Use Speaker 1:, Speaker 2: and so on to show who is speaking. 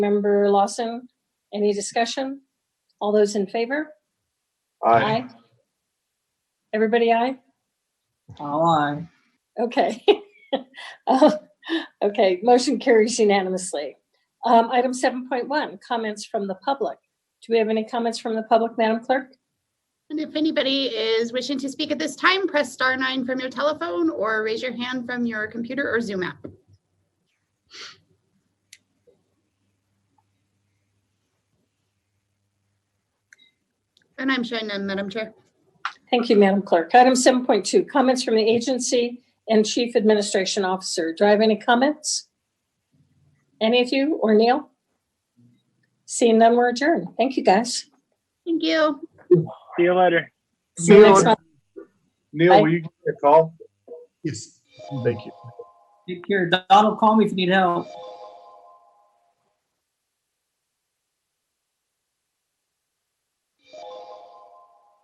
Speaker 1: Member Lawson, any discussion? All those in favor?
Speaker 2: Aye.
Speaker 1: Everybody aye?
Speaker 3: All aye.
Speaker 1: Okay. Uh, Okay, motion carries unanimously. Um, Item 7.1, comments from the public. Do we have any comments from the public, Madam Clerk?
Speaker 4: And if anybody is wishing to speak at this time, press star nine from your telephone or raise your hand from your computer or Zoom app. And I'm showing none, Madam Chair.
Speaker 1: Thank you, Madam Clerk. Item 7.2, comments from the agency and Chief Administration Officer. Do I have any comments? Any of you or Neil? Seeing none, we're adjourned. Thank you, guys.
Speaker 4: Thank you.
Speaker 5: See you later.
Speaker 1: See you next month.
Speaker 2: Neil, will you give me a call?
Speaker 6: Yes.
Speaker 2: Thank you.
Speaker 3: Take care. Donald, call me if you need help.